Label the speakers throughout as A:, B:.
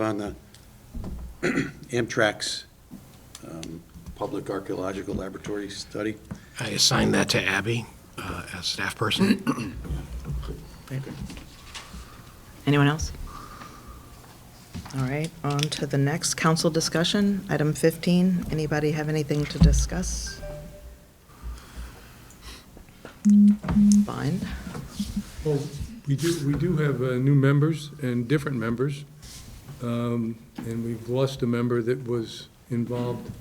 A: on the Amtrak's um, Public Archaeological Laboratory study.
B: I assigned that to Abby uh, as staff person.
C: Anyone else? All right, on to the next council discussion, item 15. Anybody have anything to discuss? Fine.
D: Well, we do, we do have uh, new members and different members, Um, and we've lost a member that was involved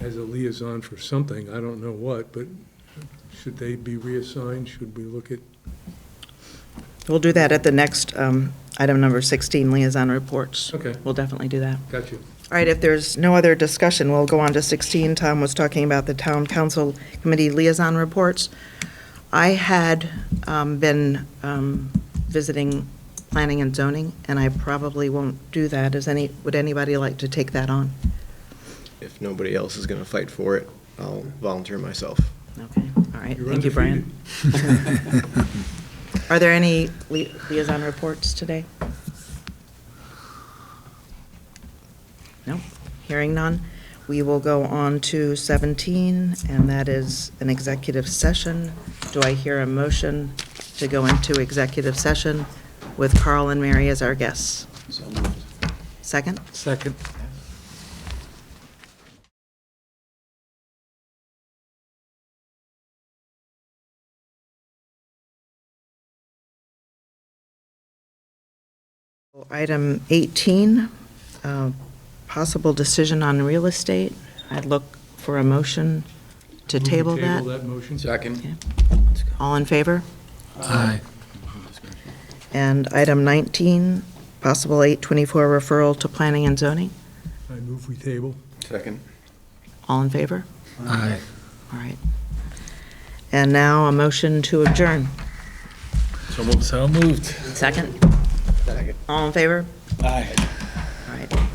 D: as a liaison for something, I don't know what, but should they be reassigned? Should we look at,
C: We'll do that at the next um, item number 16, liaison reports.
D: Okay.
C: We'll definitely do that.
D: got you.
C: All right, if there's no other discussion, we'll go on to 16. Tom was talking about the town council committee liaison reports. I had um, been um, visiting planning and zoning, and I probably won't do that. Is any, would anybody like to take that on?
E: if nobody else is going to fight for it, I'll volunteer myself.
C: Okay, all right.
D: You're
C: Thank you, Brian. Are there any li- liaison reports today? No, hearing none. We will go on to 17, and that is an executive session. Do I hear a motion to go into executive session with Carl and Mary as our guests?
A: So moved.
C: Second?
D: Second.
C: Item 18, uh, possible decision on real estate. I'd look for a motion to table that.
D: Table that motion?
C: All in favor? Aye. And item 19, possible 824 referral to planning and zoning.
D: I move we table.
E: Second.
C: All in favor? Aye. All right. And now a motion to adjourn.
F: So moved.
C: Second?
E: Second.
C: All in favor?
F: Aye.
C: All right.